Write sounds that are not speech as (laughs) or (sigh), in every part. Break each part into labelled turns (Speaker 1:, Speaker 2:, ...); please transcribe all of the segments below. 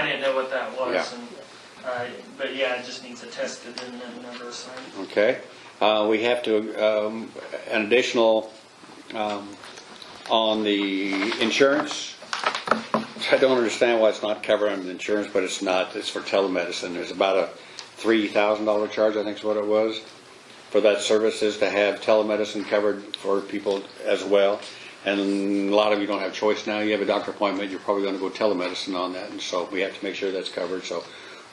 Speaker 1: didn't know what that was,
Speaker 2: Yeah.
Speaker 1: and, uh, but yeah, it just needs attested and then number assigned.
Speaker 2: Okay, Uh, we have to, um, an additional um, on the insurance. I don't understand why it's not covered under the insurance, but it's not, it's for telemedicine. There's about a $3,000 charge, I think is what it was, for that services to have telemedicine covered for people as well. And a lot of you don't have choice now, you have a doctor appointment, you're probably gonna go telemedicine on that, and so we have to make sure that's covered. So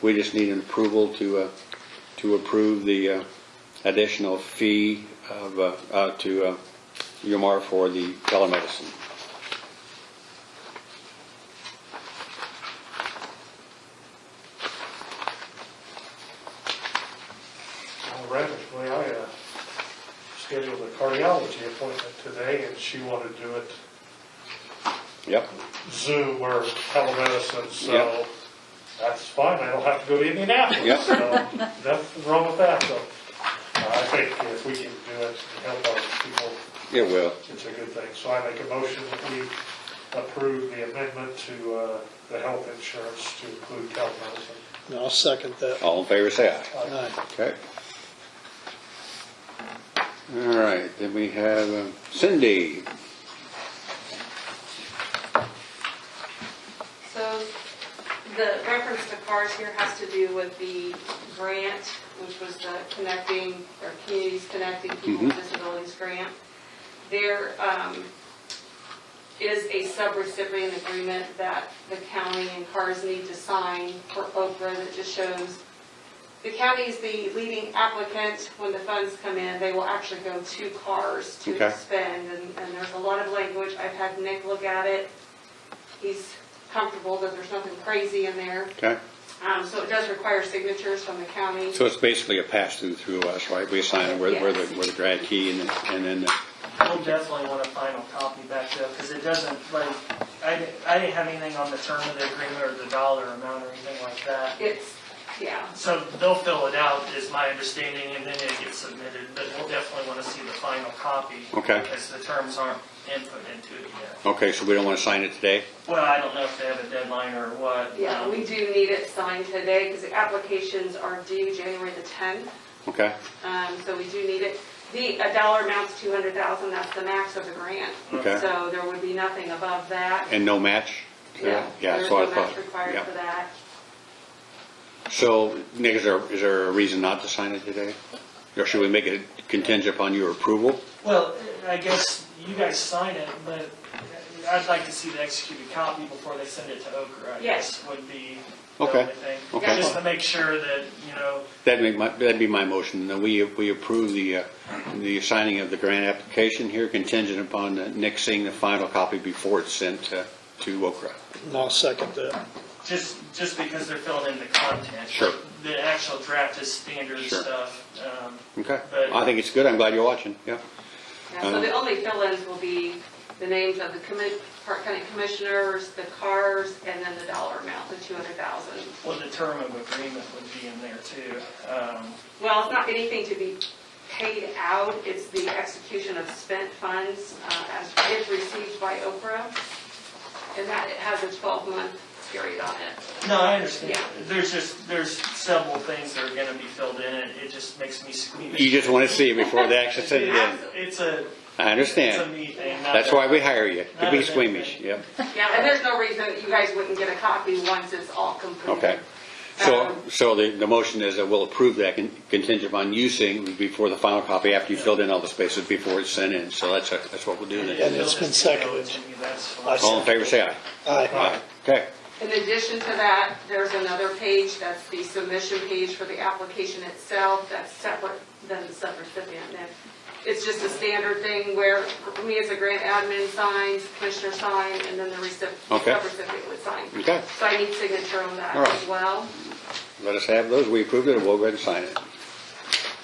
Speaker 2: we just need an approval to, uh, to approve the uh, additional fee of, uh, uh, to uh, Umar for the telemedicine.
Speaker 3: Well, Randomly, I uh, scheduled a cardiology appointment today, and she wanted to do it
Speaker 2: Yep,
Speaker 3: Zoom or telemedicine, so
Speaker 2: Yep.
Speaker 3: that's fine, I don't have to go to
Speaker 2: Yep.
Speaker 3: Indianapolis. So Nothing wrong with that, so uh, I think if we can do it to help other people,
Speaker 2: it will.
Speaker 3: it's a good thing. So I make a motion that we approve the amendment to uh, the health insurance to include telemedicine.
Speaker 4: And I'll second that.
Speaker 2: All in favor, say aye.
Speaker 4: Aye.
Speaker 2: Okay. All right, then we have uh, Cindy.
Speaker 5: So the reference to cars here has to do with the grant, which was the connecting, or communities connecting people with disabilities grant. There um, is a subrecipient agreement that the county and cars need to sign for Oprah that just shows the county is the leading applicant. When the funds come in, they will actually go to cars
Speaker 2: Okay.
Speaker 5: to spend. And and there's a lot of language. I've had Nick look at it. He's comfortable that there's nothing crazy in there.
Speaker 2: Okay,
Speaker 5: Um, So it does require signatures from the county.
Speaker 2: so it's basically a pass-through through us, right? We assign it where where the, where the grad key and then- and then, uh,
Speaker 1: We'll definitely want a final copy back though, because it doesn't, like, I, di- I didn't have anything on the term of the agreement or the dollar amount or anything like that.
Speaker 5: It's, yeah,
Speaker 1: So they'll fill it out, is my understanding, and then it gets submitted, but we'll definitely want to see the final copy.
Speaker 2: Okay.
Speaker 1: Because the terms aren't input into it yet.
Speaker 2: okay, so we don't want to sign it today?
Speaker 1: Well, I don't know if they have a deadline or what.
Speaker 5: yeah,
Speaker 1: um,
Speaker 5: we do need it signed today because the applications are due January the 10th.
Speaker 2: Okay,
Speaker 5: Um, So we do need it. The, a dollar amount's 200,000, that's the max of the grant.
Speaker 2: Okay.
Speaker 5: So there would be nothing above that.
Speaker 2: and no match? Yeah,
Speaker 5: There's
Speaker 2: so I
Speaker 5: no
Speaker 2: thought.
Speaker 5: match required
Speaker 2: yeah.
Speaker 5: for that.
Speaker 2: So, Nick, is there, is there a reason not to sign it today? Or should we make it contingent upon your approval?
Speaker 1: Well, I guess you guys sign it, but I'd like to see the executed copy before they send it to Okra, I
Speaker 5: Yes.
Speaker 1: guess, would be the
Speaker 2: Okay.
Speaker 1: only thing.
Speaker 2: Okay.
Speaker 1: Just to make sure that, you know,
Speaker 2: That'd make my, that'd be my motion, that we, we approve the, uh, the signing of the grant application here contingent upon uh, Nick seeing the final copy before it's sent uh, to Okra.
Speaker 4: And I'll second that.
Speaker 1: just, just because they're filling in the content.
Speaker 2: Sure.
Speaker 1: The actual draft is standard
Speaker 2: Sure.
Speaker 1: stuff. um,
Speaker 2: Okay,
Speaker 1: But-
Speaker 2: I think it's good, I'm glad you're watching, yeah.
Speaker 5: Yeah, so
Speaker 2: Um,
Speaker 5: the only fill-ins will be the names of the commi- Park County Commissioners, the cars, and then the dollar amount, the 200,000.
Speaker 1: Well, the term of agreement would be in there too. Um,
Speaker 5: Well, it's not anything to be paid out, it's the execution of spent funds uh, as if received by Oprah, and that it has a 12-month period on
Speaker 1: (laughs)
Speaker 5: it.
Speaker 1: No, I understand.
Speaker 5: Yeah.
Speaker 1: There's just, there's several things that are gonna be filled in, and it just makes me squeamish.
Speaker 2: You just want to see it before they actually send it in.
Speaker 1: It's a,
Speaker 2: I
Speaker 1: it's a
Speaker 2: understand,
Speaker 1: me thing. not
Speaker 2: that's
Speaker 1: a-
Speaker 2: why we hire you, to
Speaker 1: Not
Speaker 2: be
Speaker 1: a bad
Speaker 2: squeamish,
Speaker 1: thing.
Speaker 2: yeah.
Speaker 5: Yeah, and there's no reason you guys wouldn't get a copy once it's all completed.
Speaker 2: Okay. So,
Speaker 5: Um,
Speaker 2: so the, the motion is that we'll approve that con- contingent on you seeing before the final copy, after you filled in all the spaces before it's sent in. So that's, that's what we'll do then.
Speaker 4: And it's been seconded.
Speaker 2: All in favor, say aye.
Speaker 4: Aye.
Speaker 2: Okay,
Speaker 5: In addition to that, there's another page, that's the submission page for the application itself, that's separate than the subrecipient. And It's just a standard thing where me as a grant admin signs, commissioner sign, and then the recip-
Speaker 2: Okay.
Speaker 5: subrecipient would sign.
Speaker 2: Okay.
Speaker 5: So I need signature on that
Speaker 2: All right.
Speaker 5: as well.
Speaker 2: let us have those. We approved it, and we'll go ahead and sign it.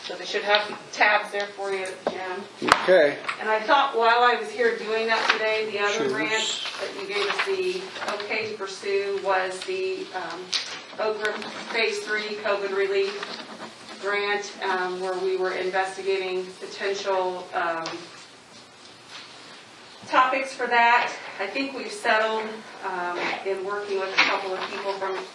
Speaker 5: So they should have tabs there for you, Jim.
Speaker 2: Okay.
Speaker 5: And I thought while I was here doing that today, the other
Speaker 4: Sure.
Speaker 5: grant that you gave us the okay to pursue was the um, Oakland Phase 3 COVID relief grant, um, where we were investigating potential um, topics for that. I think we've settled um, in working with a couple of people from